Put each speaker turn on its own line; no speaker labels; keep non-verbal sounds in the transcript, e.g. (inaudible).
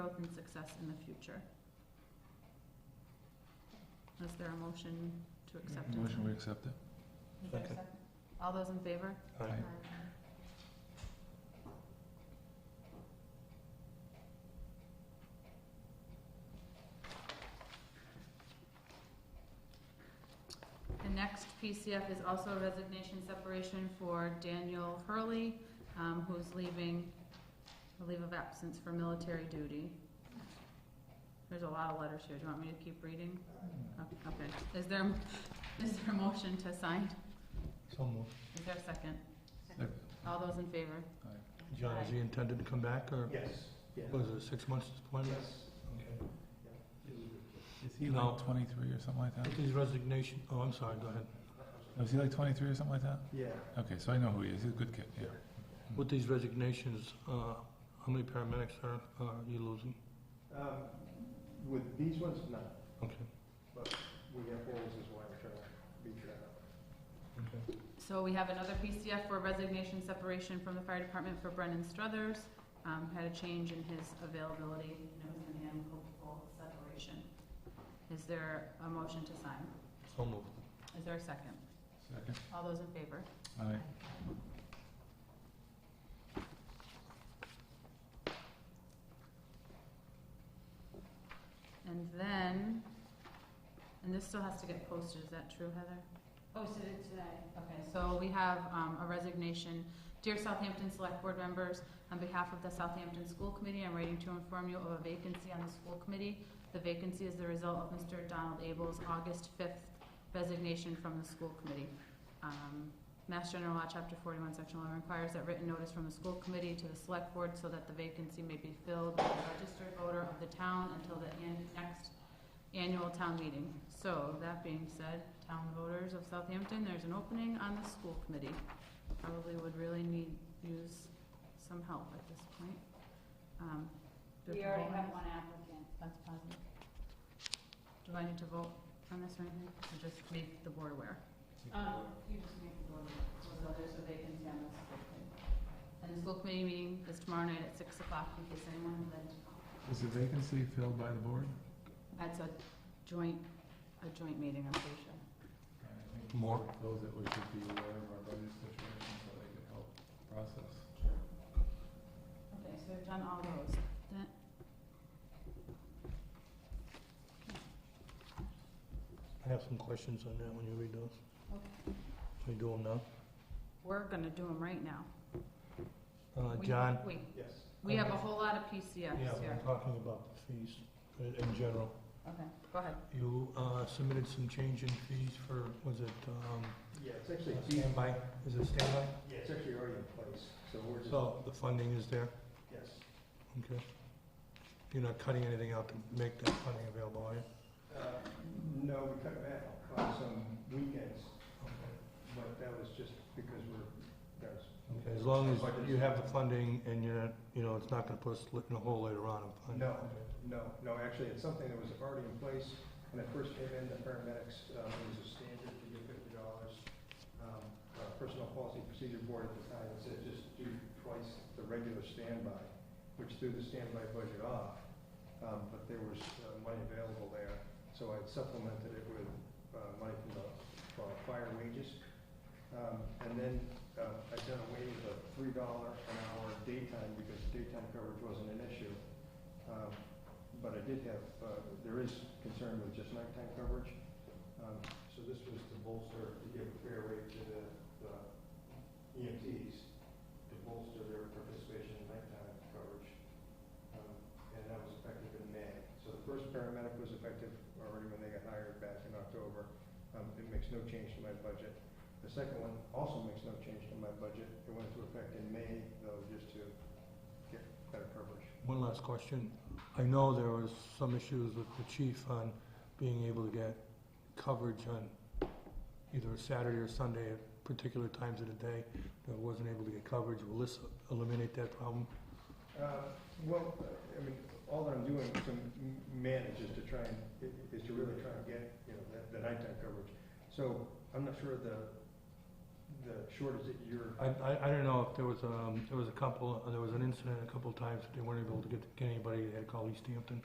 growth and success in the future. Is there a motion to accept it?
Motion, we accept it.
Is there a
Second.
second? All those in favor?
Aye.
The next PCF is also a resignation separation for Daniel Hurley, um, who's leaving a leave of absence for military duty. There's a lot of letters here, do you want me to keep reading? O- Okay, is there, (laughs) is there a motion to sign?
So moved.
Is there a second?
Second.
All those in favor?
John, is he intended to come back, or
Yes, yeah.
was it six months appointment?
Okay.
Is he
No.
like twenty-three or something like that?
With his resignation, oh, I'm sorry, go ahead.
Is he like twenty-three or something like that?
Yeah.
Okay, so I know who he is, he's a good kid, yeah.
With these resignations, uh, how many paramedics are, are you losing?
Um, With these ones, no.
Okay,
We have holes is why we're trying to beat that up.
okay.
So we have another PCF for resignation separation from the fire department for Brendan Struthers. Um, had a change in his availability, and it was an amicable separation. Is there a motion to sign?
So moved.
Is there a second?
Second.
All those in favor?
Aye.
And then, and this still has to get posted, is that true, Heather? Posted it today. Okay, so we have, um, a resignation. Dear Southampton Select Board members, on behalf of the Southampton School Committee, I'm writing to inform you of a vacancy on the school committee. The vacancy is the result of Mr. Donald Abel's August fifth resignation from the school committee. Um, Mass General Law, Chapter forty-one, Section eleven requires that written notice from the school committee to the select board so that the vacancy may be filled by a registered voter of the town until the an- next annual town meeting. So, that being said, town voters of Southampton, there's an opening on the school committee. Probably would really need, use some help at this point. Um, do
We
have to
already
vote on
have
this?
one applicant.
That's positive. Do I need to vote on this or anything, or just make the board aware?
Um, you just make the board,
So there's a vacancy on the school committee. And the school committee meeting is tomorrow night at six o'clock, in case anyone would like to come.
Is the vacancy filled by the board?
That's a joint, a joint meeting, I'm pretty sure.
More.
Those that we should be aware of our budget situation so they can help process.
Okay, so we've done all those. That-
I have some questions on that when you read those.
Okay.
Are you doing now?
We're gonna do them right now.
Uh,
We-
John?
Wait,
Yes.
we have a whole lot of PCFs
Yeah,
here.
we're talking about the fees in, in general.
Okay, go ahead.
You, uh, submitted some change in fees for, was it, um,
Yeah, it's actually,
standby? Is it standby?
yeah, it's actually already in place, so we're just,
So the funding is there?
yes.
Okay. You're not cutting anything out to make that funding available, are you?
Uh, No, we cut back on some weekends, but that was just because we're, that was.
Okay, As long as you have the funding and you're, not- you know, it's not gonna put us in a hole later on. I'm fine.
No, no, no, actually, it's something that was already in place. When I first came in, the paramedics, uh, it was a standard to get fifty dollars. Um, uh, Personnel Policy Procedure Board at the time said just do twice the regular standby, which threw the standby budget off. Um, but there was uh, money available there, so I supplemented it with, uh, money from the, from fire wages. Um, and then, uh, I done away with a three dollar an hour daytime because daytime coverage wasn't an issue. Um, But I did have, uh, there is concern with just nighttime coverage. Um, So this was to bolster, to give a fair rate to the the EMTs, to bolster their participation in nighttime coverage. Um, And that was effective in May. So the first paramedic was effective already when they got hired back in October. Um, It makes no change to my budget. The second one also makes no change to my budget. It went into effect in May, though, just to get better coverage.
One last question. I know there was some issues with the chief on being able to get coverage on either a Saturday or Sunday at particular times of the day that wasn't able to get coverage. Will this eliminate that problem?
Uh, Well, I mean, all that I'm doing to m- manage is to try and, i- is to really try and get, you know, that- the nighttime coverage. So I'm not sure the, the shortage that you're,
I, I, I don't know if there was, um, there was a couple, there was an incident a couple times, that they weren't able to get, get anybody, they had to call East Hampton.